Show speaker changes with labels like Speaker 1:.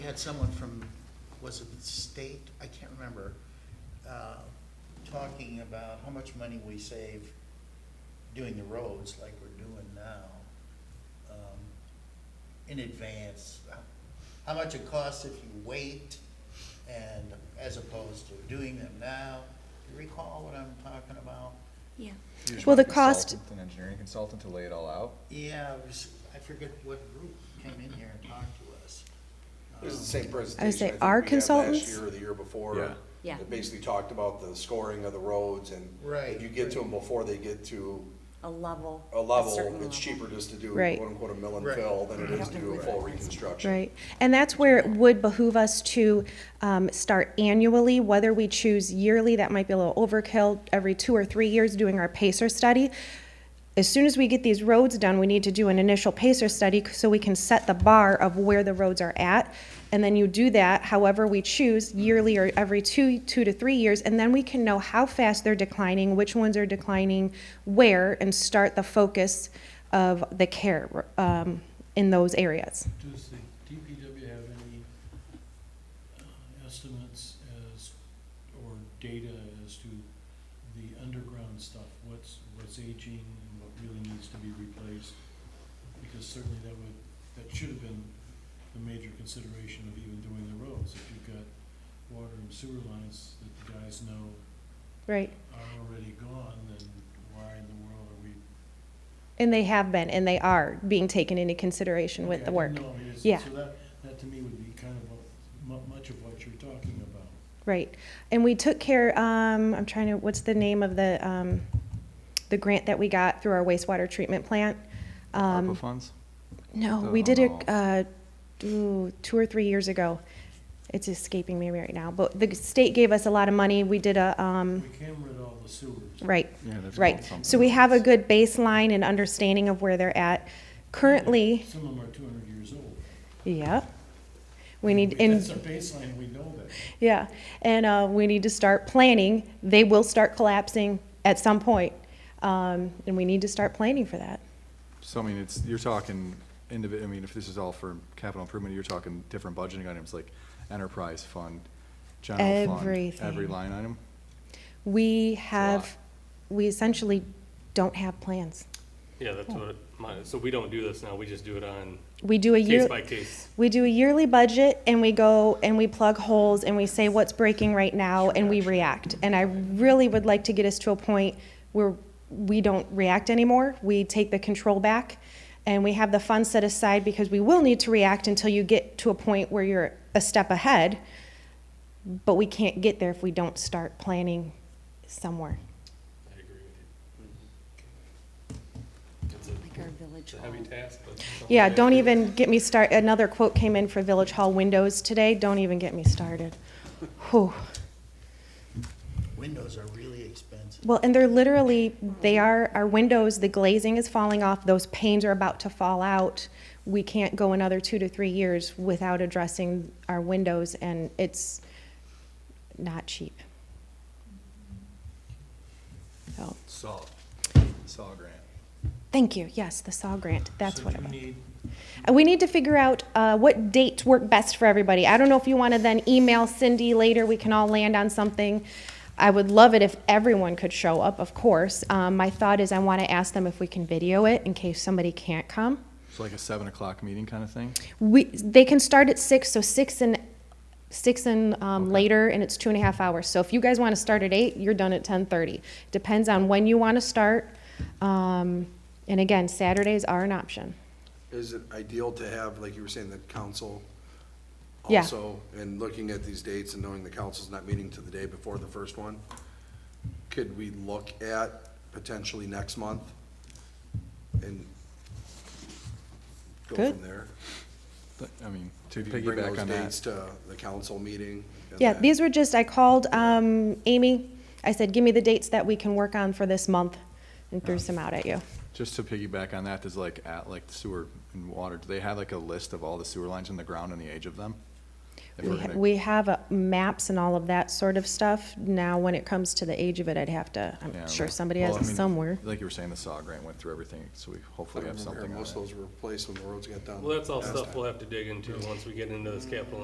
Speaker 1: We had someone from, was it the state, I can't remember, uh, talking about how much money we save doing the roads like we're doing now, um, in advance. How much it costs if you wait and as opposed to doing them now. Do you recall what I'm talking about?
Speaker 2: Yeah,
Speaker 3: You just
Speaker 2: Well,
Speaker 3: want
Speaker 2: the
Speaker 3: a
Speaker 2: cost-
Speaker 3: consultant, An engineering consultant to lay it all out?
Speaker 1: Yeah, it was, I forget what group came in here and talked to us. Um,
Speaker 4: It was the same presentation.
Speaker 2: say
Speaker 4: think
Speaker 2: our
Speaker 4: we had
Speaker 2: consultants?
Speaker 4: Last year or the year before.
Speaker 5: Yeah.
Speaker 2: Yeah.
Speaker 4: It basically talked about the scoring of the roads and.
Speaker 1: Right.
Speaker 4: If you get to them before they get to
Speaker 6: a level.
Speaker 4: a level,
Speaker 6: certain
Speaker 4: it's cheaper just to do
Speaker 2: Right.
Speaker 4: quote unquote a mill and
Speaker 1: Right.
Speaker 4: fill than it is to
Speaker 6: Right.
Speaker 4: do a full reconstruction.
Speaker 2: right. And that's where it would behoove us to um, start annually, whether we choose yearly, that might be a little overkill, every two or three years doing our PACER study. As soon as we get these roads done, we need to do an initial PACER study so we can set the bar of where the roads are at. And then you do that however we choose, yearly or every two, two to three years, and then we can know how fast they're declining, which ones are declining where, and start the focus of the care um, in those areas.
Speaker 7: Does the DPW have any uh, estimates as, or data as to the underground stuff? What's, what's aging and what really needs to be replaced? Because certainly that would, that should have been the major consideration of even doing the roads. If you've got water and sewer lines that the guys know
Speaker 2: Right.
Speaker 7: are already gone, then why in the world are we?
Speaker 2: And they have been, and they are being taken into consideration with
Speaker 7: Okay,
Speaker 2: the
Speaker 7: I
Speaker 2: work.
Speaker 7: didn't know. Yes,
Speaker 2: Yeah.
Speaker 7: So that, that to me would be kind of a- mu- much of what you're talking about.
Speaker 2: Right. And we took care, um, I'm trying to, what's the name of the, um, the grant that we got through our wastewater treatment plant? Um,
Speaker 3: ARPA funds?
Speaker 2: No,
Speaker 3: The-
Speaker 2: we did it,
Speaker 3: oh.
Speaker 2: uh, ooh, two or three years ago. It's escaping me right now, but the state gave us a lot of money. We did a, um,
Speaker 7: We can rid all the sewers.
Speaker 2: right,
Speaker 3: Yeah, that's
Speaker 2: right. So we have a good baseline and understanding of where they're at. Currently,
Speaker 7: Some of them are two hundred years old.
Speaker 2: yeah. We need,
Speaker 7: I mean,
Speaker 2: and
Speaker 7: That's a baseline, we know that.
Speaker 2: Yeah, and uh, we need to start planning. They will start collapsing at some point, um, and we need to start planning for that.
Speaker 3: So I mean, it's, you're talking individ, I mean, if this is all for capital improvement, you're talking different budgeting items like enterprise fund, general fund. Every
Speaker 2: Everything.
Speaker 3: line item?
Speaker 2: We
Speaker 3: lot.
Speaker 2: have, we essentially don't have plans.
Speaker 5: Yeah, that's what, my, so we don't do this now, we just do it on
Speaker 2: We do a year.
Speaker 5: case by case.
Speaker 2: We do a yearly budget and we go and we plug holes and we say what's breaking right now and we react. And I really would like to get us to a point where we don't react anymore. We take the control back and we have the funds set aside because we will need to react until you get to a point where you're a step ahead. But we can't get there if we don't start planning somewhere.
Speaker 5: I agree with
Speaker 6: Like our village
Speaker 5: you. Mm-hmm. It's a
Speaker 6: hall.
Speaker 5: heavy task, but. it's something
Speaker 2: Yeah,
Speaker 5: that-
Speaker 2: don't even get me start, another quote came in for Village Hall windows today. Don't even get me started. Whew.
Speaker 1: Windows are really expensive.
Speaker 2: Well, and they're literally, they are, our windows, the glazing is falling off, those panes are about to fall out. We can't go another two to three years without addressing our windows, and it's not cheap. So,
Speaker 3: Saw, saw grant.
Speaker 2: thank you, yes, the SAW grant, that's
Speaker 7: So
Speaker 2: what
Speaker 7: do
Speaker 2: it
Speaker 7: we
Speaker 2: was.
Speaker 7: need-
Speaker 2: Uh, We need to figure out uh, what dates work best for everybody. I don't know if you want to then email Cindy later, we can all land on something. I would love it if everyone could show up, of course. Um, My thought is I want to ask them if we can video it in case somebody can't come.
Speaker 3: It's like a seven o'clock meeting kind of thing?
Speaker 2: We, they can start at six, so six and, six and um,
Speaker 3: Okay.
Speaker 2: later, and it's two and a half hours. So if you guys want to start at eight, you're done at ten thirty. Depends on when you want to start. Um, And again, Saturdays are an option.
Speaker 4: Is it ideal to have, like you were saying, the council
Speaker 2: Yeah.
Speaker 4: also, and looking at these dates and knowing the council's not meeting to the day before the first one? Could we look at potentially next month and go
Speaker 2: Good.
Speaker 4: from there?
Speaker 3: But, I mean, to
Speaker 4: If you can bring
Speaker 3: piggyback
Speaker 4: those
Speaker 3: on
Speaker 4: dates
Speaker 3: that.
Speaker 4: to the council meeting. and
Speaker 2: Yeah,
Speaker 4: then-
Speaker 2: these were just, I called um, Amy, I said, give me the dates that we can work on for this month, and threw some out at you.
Speaker 3: Just to piggyback on that, does like, at, like sewer and water, do they have like a list of all the sewer lines in the ground and the age of them? If
Speaker 2: We
Speaker 3: we're
Speaker 2: ha-
Speaker 3: gonna-
Speaker 2: We have uh, maps and all of that sort of stuff. Now, when it comes to the age of it, I'd have to,
Speaker 3: Yeah,
Speaker 2: I'm sure
Speaker 3: like-
Speaker 2: somebody
Speaker 3: well,
Speaker 2: has
Speaker 3: I
Speaker 2: it
Speaker 3: mean,
Speaker 2: somewhere.
Speaker 3: Like you were saying, the SAW grant went through everything, so we
Speaker 4: I
Speaker 3: hopefully have
Speaker 4: remember
Speaker 3: something on
Speaker 4: most
Speaker 3: it.
Speaker 4: of those were replaced when the roads got done.
Speaker 5: Well, that's all
Speaker 4: last
Speaker 5: stuff
Speaker 4: time.
Speaker 5: we'll have to dig into once we get into this capital